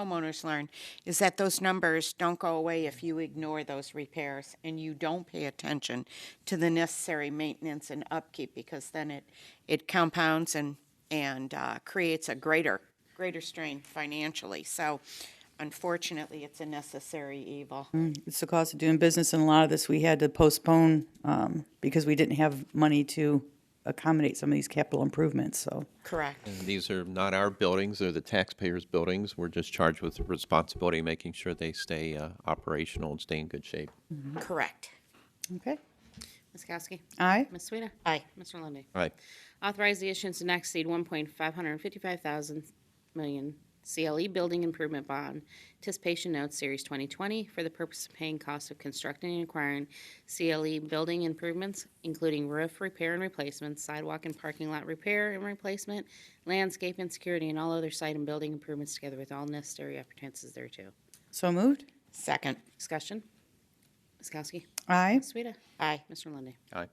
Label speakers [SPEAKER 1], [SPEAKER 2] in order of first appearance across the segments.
[SPEAKER 1] homeowners learn is that those numbers don't go away if you ignore those repairs and you don't pay attention to the necessary maintenance and upkeep because then it, it compounds and, and uh, creates a greater, greater strain financially. So unfortunately, it's a necessary evil.
[SPEAKER 2] It's the cost of doing business, and a lot of this we had to postpone um, because we didn't have money to accommodate some of these capital improvements, so.
[SPEAKER 1] Correct.
[SPEAKER 3] These are not our buildings, they're the taxpayers' buildings. We're just charged with the responsibility of making sure they stay uh, operational and stay in good shape.
[SPEAKER 1] Correct.
[SPEAKER 2] Okay.
[SPEAKER 4] Ms. Kowski.
[SPEAKER 2] Aye.
[SPEAKER 4] Ms. Sueda.
[SPEAKER 1] Aye.
[SPEAKER 4] Mr. Lundy.
[SPEAKER 3] All right,
[SPEAKER 4] Authorize the issuance to not exceed one point five hundred and fifty-five thousand million CLE Building Improvement Bond Anticipation Notes Series twenty twenty for the purpose of paying costs of constructing and acquiring CLE building improvements, including roof repair and replacement, sidewalk and parking lot repair and replacement, landscape and security, and all other site and building improvements together with all necessary appetances thereto.
[SPEAKER 2] So moved?
[SPEAKER 1] Second.
[SPEAKER 4] Discussion? Ms. Kowski.
[SPEAKER 2] Aye.
[SPEAKER 4] Ms. Sueda.
[SPEAKER 1] Aye.
[SPEAKER 4] Mr. Lundy.
[SPEAKER 3] all right,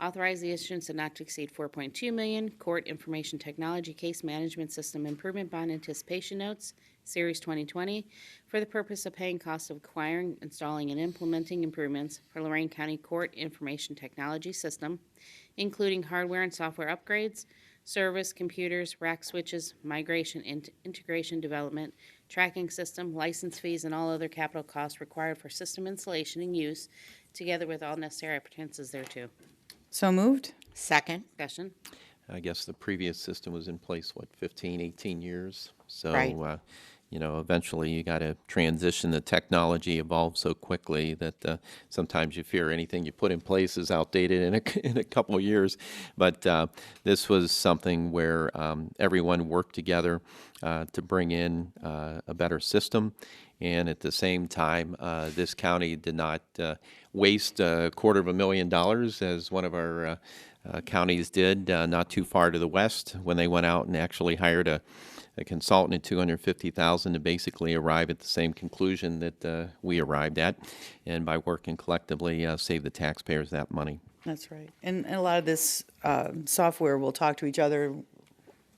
[SPEAKER 4] Authorize the issuance of not to exceed 4.2 million Court Information Technology Case Management System Improvement Bond Anticipation Notes, Series 2020, for the purpose of paying costs of acquiring, installing, and implementing improvements for Lorraine County Court Information Technology System, including hardware and software upgrades, service, computers, rack switches, migration, and integration development, tracking system, license fees, and all other capital costs required for system installation and use, together with all necessary appetances thereto.
[SPEAKER 2] So moved?
[SPEAKER 1] Second.
[SPEAKER 4] Discussion.
[SPEAKER 3] I guess the previous system was in place, what, 15, 18 years? So,
[SPEAKER 1] Right.
[SPEAKER 3] uh, you know, eventually you got to transition. The technology evolves so quickly that uh, sometimes you fear anything you put in place is outdated in a, in a couple of years. But uh, this was something where um, everyone worked together uh, to bring in uh, a better system. And at the same time, uh, this county did not uh, waste a quarter of a million dollars as one of our uh, uh, counties did uh, not too far to the west when they went out and actually hired a, a consultant at 250000 to basically arrive at the same conclusion that uh, we arrived at. And by working collectively, uh, save the taxpayers that money.
[SPEAKER 2] That's right. And and a lot of this uh, software will talk to each other,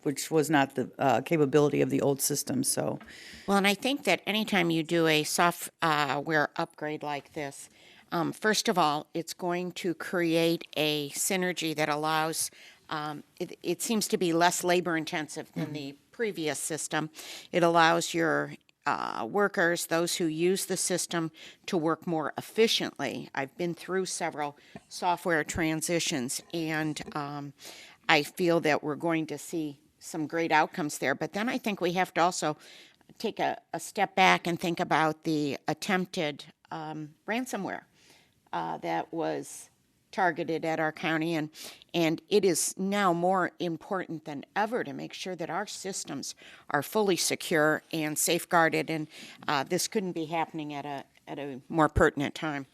[SPEAKER 2] which was not the uh, capability of the old system, so.
[SPEAKER 1] Well, and I think that anytime you do a software upgrade like this, um, first of all, it's going to create a synergy that allows, um, it, it seems to be less labor intensive than the previous system. It allows your uh, workers, those who use the system, to work more efficiently. I've been through several software transitions, and um, I feel that we're going to see some great outcomes there. But then I think we have to also take a, a step back and think about the attempted um, ransomware uh, that was targeted at our county and and it is now more important than ever to make sure that our systems are fully secure and safeguarded and uh, this couldn't be happening at a at a more pertinent time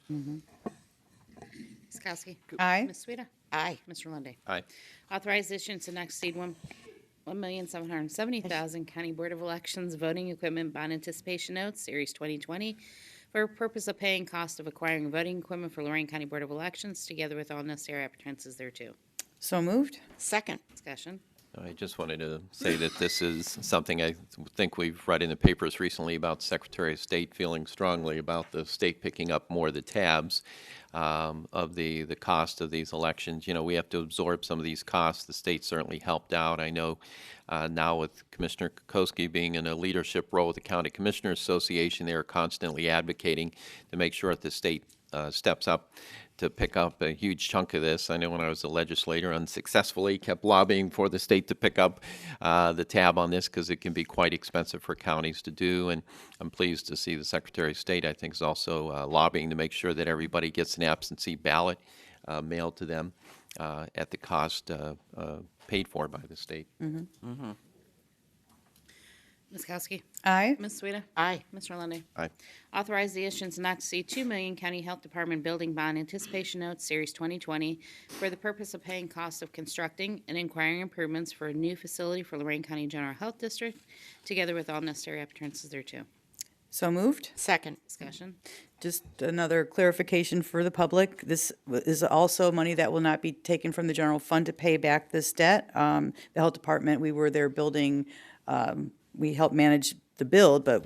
[SPEAKER 4] Ms. Kowski.
[SPEAKER 2] Aye.
[SPEAKER 4] Ms. Sueda.
[SPEAKER 1] aye
[SPEAKER 4] Mr. Lundy.
[SPEAKER 3] Aye.
[SPEAKER 4] Authorize issuance to not exceed one, one million seven hundred and seventy thousand County Board of Elections Voting Equipment Bond Anticipation Notes, Series twenty twenty, for purpose of paying cost of acquiring voting equipment for Lorraine County Board of Elections, together with all necessary appetances thereto.
[SPEAKER 2] So moved?
[SPEAKER 1] second
[SPEAKER 4] Discussion.
[SPEAKER 3] I just wanted to say that this is something I think we've read in the papers recently about Secretary of State feeling strongly about the state picking up more of the tabs um, of the, the cost of these elections. You know, we have to absorb some of these costs. The state certainly helped out. I know uh, now with Commissioner Kokoski being in a leadership role with the County Commissioner Association, they are constantly advocating to make sure that the state uh, steps up to pick up a huge chunk of this. I know when I was a legislator, unsuccessfully kept lobbying for the state to pick up uh, the tab on this because it can be quite expensive for counties to do. And I'm pleased to see the Secretary of State, I think, is also uh, lobbying to make sure that everybody gets an absentee ballot uh, mailed to them uh, at the cost uh, uh, paid for by the state.
[SPEAKER 4] Ms. Kowski.
[SPEAKER 2] Aye.
[SPEAKER 4] Ms. Sueda.
[SPEAKER 1] aye
[SPEAKER 4] Mr. Lundy.
[SPEAKER 3] Aye.
[SPEAKER 4] Authorize the issuance not to exceed 2 million County Health Department Building Bond Anticipation Notes, Series 2020, for the purpose of paying costs of constructing and inquiring improvements for a new facility for Lorraine County General Health District, together with all necessary appetances thereto.
[SPEAKER 2] So moved?
[SPEAKER 1] second
[SPEAKER 4] Discussion.
[SPEAKER 2] Just another clarification for the public. This is also money that will not be taken from the general fund to pay back this debt. Um, The health department, we were there building, um, we helped manage the build, but